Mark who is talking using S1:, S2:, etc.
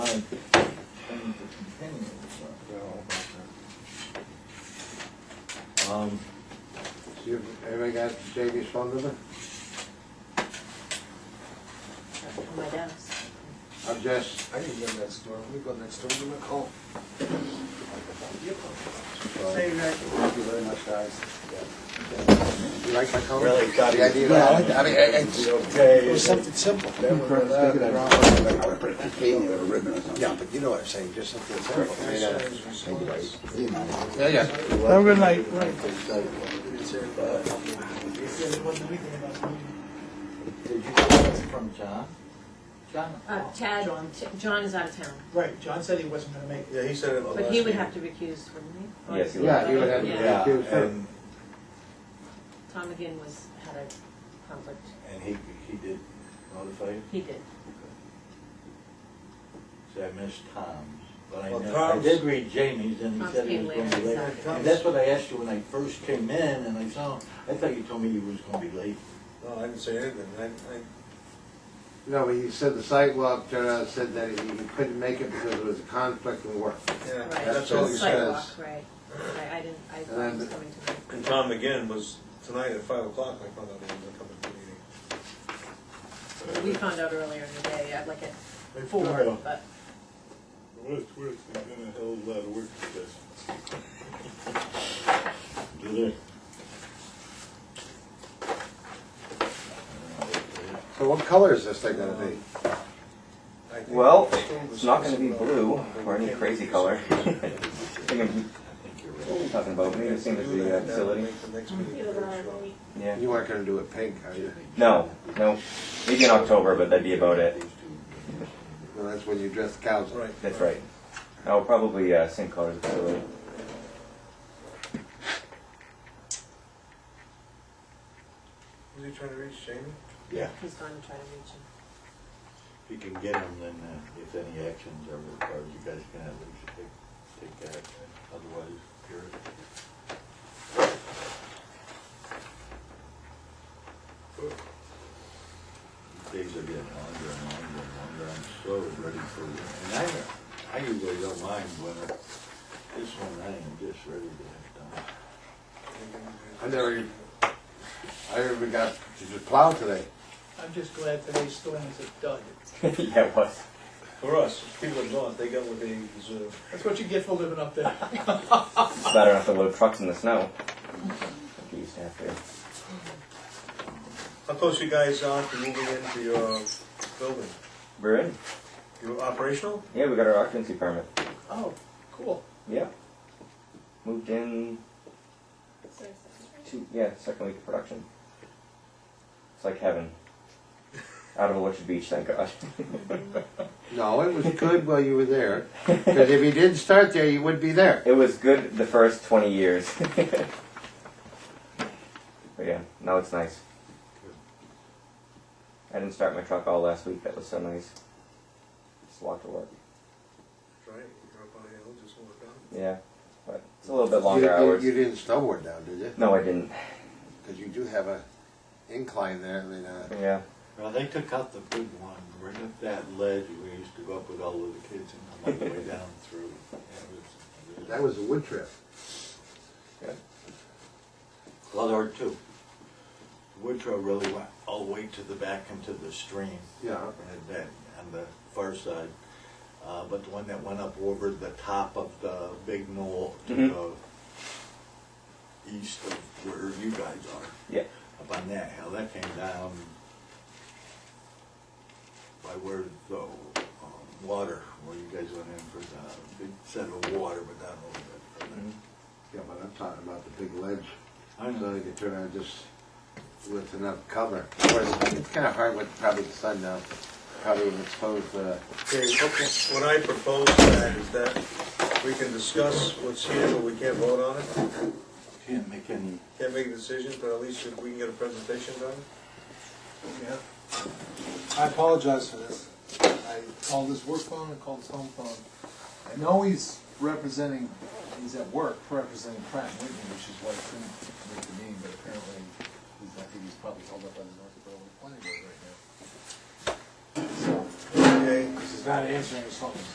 S1: Um,
S2: You, everybody got Jamie's phone number?
S3: on my desk.
S2: I'm just,
S4: I can go next door, we go next door, give them a call.
S2: uh,
S4: Thank you very much, guys.
S2: you like my color?
S1: Really got
S2: The
S1: it.
S2: idea
S4: Yeah, I
S2: that-
S4: like that. I mean, I- I just- It was something simple.
S2: Yeah, but you know what I'm saying, just something simple. I mean, uh, Yeah, yeah.
S5: Have a good night.
S6: Did you get that from John? John?
S3: Uh, Chad, John is out of town,
S7: Right, John said he wasn't gonna make it.
S4: Yeah, he said it.
S3: but he would have to recuse, wouldn't he?
S1: yes, you
S2: Yeah,
S1: are.
S2: you would have,
S3: Yeah.
S2: to do it.
S6: And,
S3: Tom McGinn was, had a conflict.
S6: and he, he did notify you?
S3: He did.
S6: See, I missed Tom's, but I
S4: Well,
S6: know, I
S4: Tom's-
S6: did read Jamie's and he
S3: Tom's
S6: said he
S3: came
S6: was gonna
S3: later,
S6: be late.
S3: exactly.
S6: And that's what I asked you when I first came in and I saw, him. I thought you told me you was gonna be late.
S4: No, Oh, I didn't say anything, I, I,
S2: No, but he said the sidewalk, turned out, said that he he couldn't make it because it was a conflict in work.
S4: yeah,
S3: Right.
S4: that's all he said.
S3: Sidewalk, right. I, I didn't, I I was coming to.
S4: And Tom again was tonight at five o'clock, I found out he wasn't coming to the meeting.
S3: We found out earlier in the day, I'd like it
S6: Four.
S3: four, but
S8: What it's worth, he's done a hell of a lot of work for this.
S6: Did it?
S2: So what color is this thing gonna be?
S4: I think
S1: Well,
S4: the school was
S1: it's not gonna be
S4: supposed to-
S1: blue or any crazy color. Thinking- Nothing about me, it seems to be a uh, facility.
S4: Make the next meeting work, so.
S1: Yeah.
S2: You weren't gonna do it pink, are you?
S1: No, no, maybe in October, but that'd be about it.
S2: No, that's when you dress cows up.
S4: Right.
S1: That's right. I'll probably uh, same colors as the facility.
S4: Was he trying to reach Jamie?
S3: he's going to try to reach him.
S6: If you can get them, then uh, if any actions are required, you guys can at least take, take action, otherwise, you're. Days are getting longer and longer and longer, I'm so ready for, and I, I usually don't mind winter. This one, I am just ready to have done.
S2: I never, even- I never even got to just plow today.
S7: I'm just glad today's storm is a dud.
S1: Yeah, it was.
S4: For us, people of North, they got what they deserve.
S7: That's what you get for living up there.
S1: It's bad enough to load trucks in the snow. You used to have to.
S4: How close you guys are to moving into your building?
S1: We're in.
S4: You operational?
S1: Yeah, we got our occupancy permit.
S7: Oh, cool.
S1: Yeah. Moved in two, yeah, second week of production. It's like heaven. Out of Orchard Beach, thank God.
S2: No, it was good while you were there, because if you didn't start there, you wouldn't be there.
S1: It was good the first 20 years. but yeah, now it's nice. I didn't start my truck all last week. That was so nice. Just walked to work.
S4: Right, you're up on a hill, just walk down.
S1: Yeah, but it's a little bit
S2: You-
S1: longer
S2: you-
S1: hours.
S2: You didn't snowboard down, did you?
S1: No, I didn't.
S2: Because you do have a incline there, I mean, uh,
S1: Yeah.
S6: Well, they took out the big one, right up that ledge, we used to go up with all of the kids and come all the way down through. It was-
S2: that was a wood trip.
S6: Well, there were two. Woodrow really went all the way to the back into the stream
S2: Yeah.
S6: and then on the far side. Uh, but the one that went up over the top of the big knoll to
S1: Mhm.
S6: the east of where you guys are.
S1: Yeah.
S6: Up on that hill, that came down by where the um, water, where you guys went in for the big set of water, but not over that.
S4: Mm-hmm.
S2: Yeah, but I'm talking about the big ledge.
S6: I know.
S2: So you could turn around just with enough cover. Of course, it's kind of hard with probably the sun now, probably uh, would expose the,
S4: Okay, what- what I propose to that is that we can discuss what's here, but we can't vote on it.
S6: Can't make any
S4: Can't make a decision, but at least if we can get a presentation done.
S9: Yeah. I apologize for this. I called his work phone and called his home phone. I know he's representing, he's at work representing Pratt and Whitney, which is why he couldn't make the meeting, but apparently, he's, I think he's probably held up by the North Dakota planning board right now. So,
S4: Okay,
S9: he's not answering his phone.